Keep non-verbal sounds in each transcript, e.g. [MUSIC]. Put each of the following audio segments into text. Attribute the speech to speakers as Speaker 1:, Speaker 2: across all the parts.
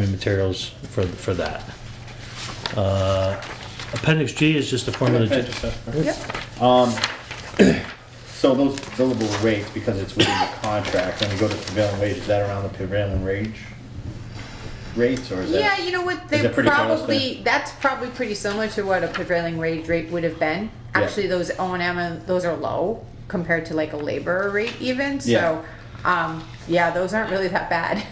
Speaker 1: engineering materials for, for that. Uh, Appendix G is just a formula.
Speaker 2: Can I
Speaker 1: ge-
Speaker 2: just ask a question?
Speaker 3: Yep.
Speaker 2: So those billable rates, because it's within the contract, when you go to prevailing wage, is that around the prevailing wage? Rates, or is that?
Speaker 3: Yeah, you know what,
Speaker 2: is
Speaker 3: they
Speaker 2: it pretty close
Speaker 3: probably, that's probably pretty similar to what a prevailing wage rate would have been.
Speaker 2: Yeah.
Speaker 3: Actually, those O and M, and those are low compared to like a laborer rate even,
Speaker 2: Yeah.
Speaker 3: so, um, yeah, those aren't really that bad.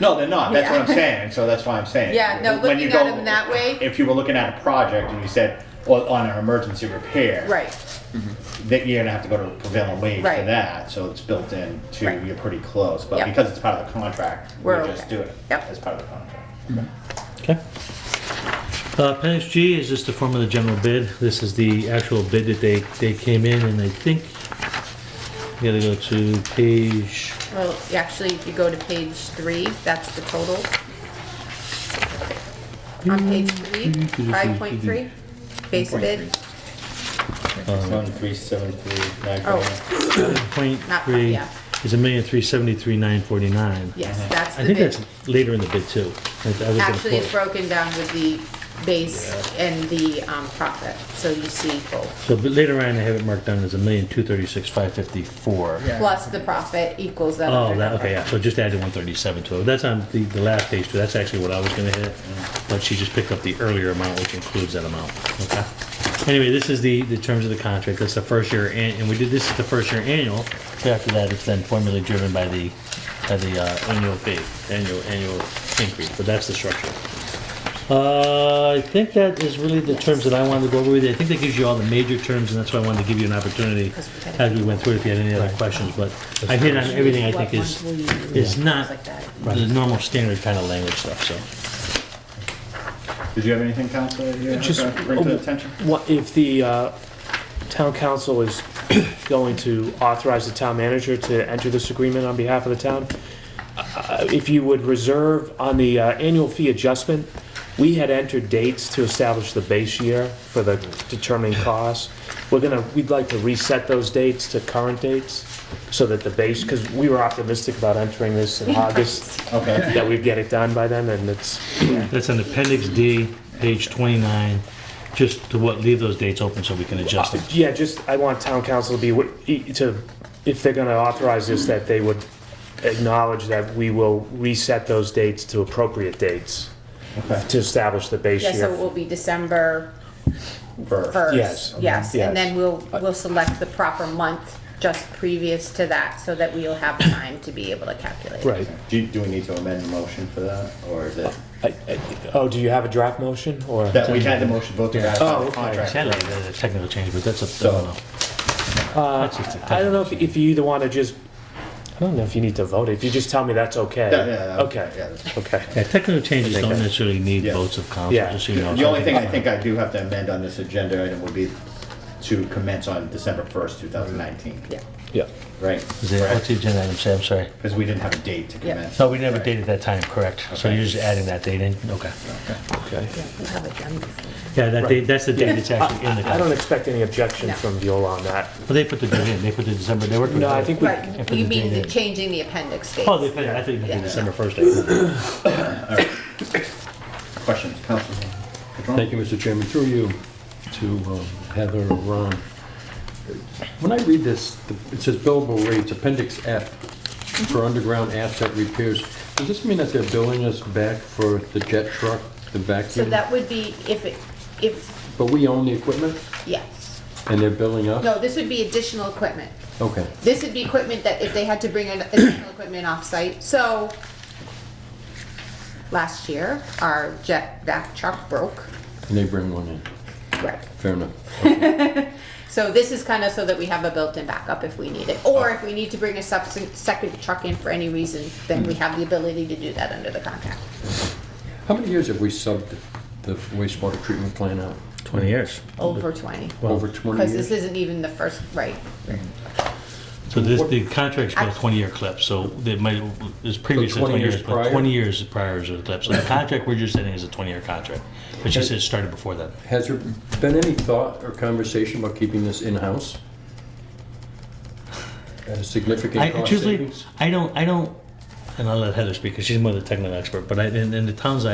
Speaker 3: [LAUGHS]
Speaker 2: No, they're not, that's what I'm
Speaker 3: Yeah.
Speaker 2: saying, so that's why I'm saying.
Speaker 3: Yeah, no,
Speaker 2: When you
Speaker 3: looking at
Speaker 2: go-
Speaker 3: them that way-
Speaker 2: If you were looking at a project and you said, well, on an emergency repair.
Speaker 3: Right,
Speaker 2: That you're gonna have to go to prevailing wage for
Speaker 3: Right.
Speaker 2: that, so it's built in to,
Speaker 3: Right.
Speaker 2: you're pretty close, but
Speaker 3: Yep.
Speaker 2: because it's part of the contract,
Speaker 3: We're
Speaker 2: we're just
Speaker 3: okay.
Speaker 2: doing it.
Speaker 3: Yep.
Speaker 2: As part of the contract.
Speaker 1: Okay. Uh, Appendix G is just the form of the general bid. This is the actual bid that they, they came in and I think, you gotta go to page,
Speaker 3: well, actually, if you go to page three, that's the total. On page three, five point three, base bid,
Speaker 2: One, three, seven, three, nine,
Speaker 3: Oh.
Speaker 2: four, nine.
Speaker 1: point
Speaker 3: Not-
Speaker 1: three,
Speaker 3: yeah.
Speaker 1: is a million three seventy-three nine forty-nine.
Speaker 3: yes,
Speaker 2: Uh-huh.
Speaker 3: that's
Speaker 1: I
Speaker 3: the
Speaker 1: think
Speaker 3: bid.
Speaker 1: that's later in the bid too. I- I was gonna
Speaker 3: Actually, it's
Speaker 1: quote.
Speaker 3: broken down with the base and the, um, profit, so you see both.
Speaker 1: So, but later on, I have it marked down as a million two thirty-six five fifty-four.
Speaker 4: Yeah.
Speaker 3: plus the profit equals that
Speaker 1: Oh,
Speaker 3: other
Speaker 1: that,
Speaker 3: number.
Speaker 1: okay, yeah, so just added one thirty-seven to it. That's on the, the last page too. That's actually what I was gonna hit. But she just picked up the earlier amount, which includes that amount, okay? Anyway, this is the, the terms of the contract. That's the first year, an- and we did, this is the first year annual. So After that, it's then formally driven by the, by the, uh, annual fee, annual, annual increase, but that's the structure. Uh, I think that is really the terms that I wanted to go over with you. I think that gives you all the major terms, and that's why I wanted to give you an opportunity as we went through, it, if you had any other questions, but I hit on everything I think is, is not the normal standard kind of language stuff, so.
Speaker 2: Did you have anything, Counselor, that you
Speaker 4: Just- oh,
Speaker 2: had to bring to the attention?
Speaker 4: What, if the uh, town council is [COUGHS] going to authorize the town manager to enter this agreement on behalf of the town, uh, if you would reserve on the uh, annual fee adjustment, we had entered dates to establish the base year for the determining costs. We're gonna, we'd like to reset those dates to current dates, so that the base, because we were optimistic about entering this in August,
Speaker 2: Okay.
Speaker 4: that we'd get it done by then, and it's,
Speaker 1: That's on appendix D, page twenty-nine, just to what, leave those dates open so we can adjust them.
Speaker 4: Yeah, just, I want town council to be, wi- e- to, if they're gonna authorize this, that they would acknowledge that we will reset those dates to appropriate dates
Speaker 2: Okay.
Speaker 4: to establish the base
Speaker 3: Yeah, so it
Speaker 4: year.
Speaker 3: will be December
Speaker 2: First.
Speaker 4: Yes,
Speaker 3: first, yes,
Speaker 4: yes.
Speaker 3: and then we'll, we'll select the proper month just previous to that, so that we'll have time to be able to calculate.
Speaker 4: Right.
Speaker 2: Do, you- do we need to amend the motion for that, or is it?
Speaker 4: I- I- Oh, do you have a draft motion, or?
Speaker 2: That we had the motion vote to ratify
Speaker 4: Oh,
Speaker 2: the
Speaker 4: okay.
Speaker 2: contract.
Speaker 1: Sadly, there's a technical change, but that's a, I don't know. That's just a
Speaker 4: I don't know if,
Speaker 1: technical
Speaker 4: if you either wanna just, I don't know if you need to vote, if you just tell me that's okay.
Speaker 2: Yeah, yeah, yeah. Yeah,
Speaker 4: Okay,
Speaker 2: that's-
Speaker 4: okay.
Speaker 1: change. Yeah, technical changes don't
Speaker 4: Okay.
Speaker 1: necessarily need
Speaker 2: Yeah.
Speaker 1: votes of council,
Speaker 4: Yeah.
Speaker 1: just so you know.
Speaker 2: The only thing I think I do have to amend on this agenda item would be to commence on December first, two thousand nineteen,
Speaker 3: Yeah,
Speaker 4: Yeah.
Speaker 2: right?
Speaker 1: Is it, what's the agenda item, Sam, sorry?
Speaker 2: Because we didn't have a date to commence.
Speaker 1: No, we never dated that time, correct? So
Speaker 2: Okay.
Speaker 1: you're just adding that date in, okay.
Speaker 4: Okay.
Speaker 3: we'll have it done before.
Speaker 1: Yeah, that date, that's the date that's actually in the
Speaker 4: I I don't
Speaker 1: contract.
Speaker 4: expect any objection
Speaker 3: No.
Speaker 4: from Viola on that.
Speaker 1: But they put the date in, they put the December, they worked with
Speaker 4: No, I
Speaker 1: that.
Speaker 4: think we,
Speaker 1: Yeah,
Speaker 3: Right,
Speaker 1: put [LAUGHS]
Speaker 3: you
Speaker 1: the
Speaker 3: mean
Speaker 1: date
Speaker 3: the
Speaker 1: in.
Speaker 3: changing the appendix
Speaker 1: Oh,
Speaker 3: dates.
Speaker 1: they put it, I thought you meant the
Speaker 3: Yeah.
Speaker 1: December first date.
Speaker 2: Questions, Council?
Speaker 5: Thank you, Mr. Chairman. Through you to um, Heather or Ron. When I read this, the- it says billable rates, Appendix F, for underground asset repairs. Does this mean that they're billing us back for the jet truck, the
Speaker 3: So
Speaker 5: vacuum?
Speaker 3: that would be if it, if,
Speaker 5: But we own the equipment
Speaker 3: yes,
Speaker 5: and they're billing us?
Speaker 3: no, this would be additional equipment.
Speaker 5: Okay.
Speaker 3: This would be equipment that if they had to bring in additional equipment off-site, so last year, our jet vac truck broke.
Speaker 5: And they bring one in.
Speaker 3: Right.
Speaker 5: Fair enough.
Speaker 3: So this is kind of so that we have a built-in backup if we need it, or if we need to bring a subs- second truck in for any reason, then we have the ability to do that under the contract.
Speaker 5: How many years have we subbed the wastewater treatment plant out?
Speaker 1: Twenty years.
Speaker 3: Over twenty,
Speaker 5: Over 20
Speaker 3: because this
Speaker 5: years?
Speaker 3: isn't even the first, right,
Speaker 1: So this, the contract's got a twenty-year clip, so they might, it's previous to
Speaker 5: 20
Speaker 1: twenty
Speaker 5: years
Speaker 1: years, but
Speaker 5: prior?
Speaker 1: twenty years prior is the clip. So the contract we're just setting is a twenty-year contract, but she said it started before that.
Speaker 5: Has there been any thought or conversation about keeping this in-house? At a significant
Speaker 1: I
Speaker 5: cost
Speaker 1: truthfully,
Speaker 5: savings?
Speaker 1: I don't, I don't, and I'll let Heather speak, because she's more the technical expert, but I, in, in the towns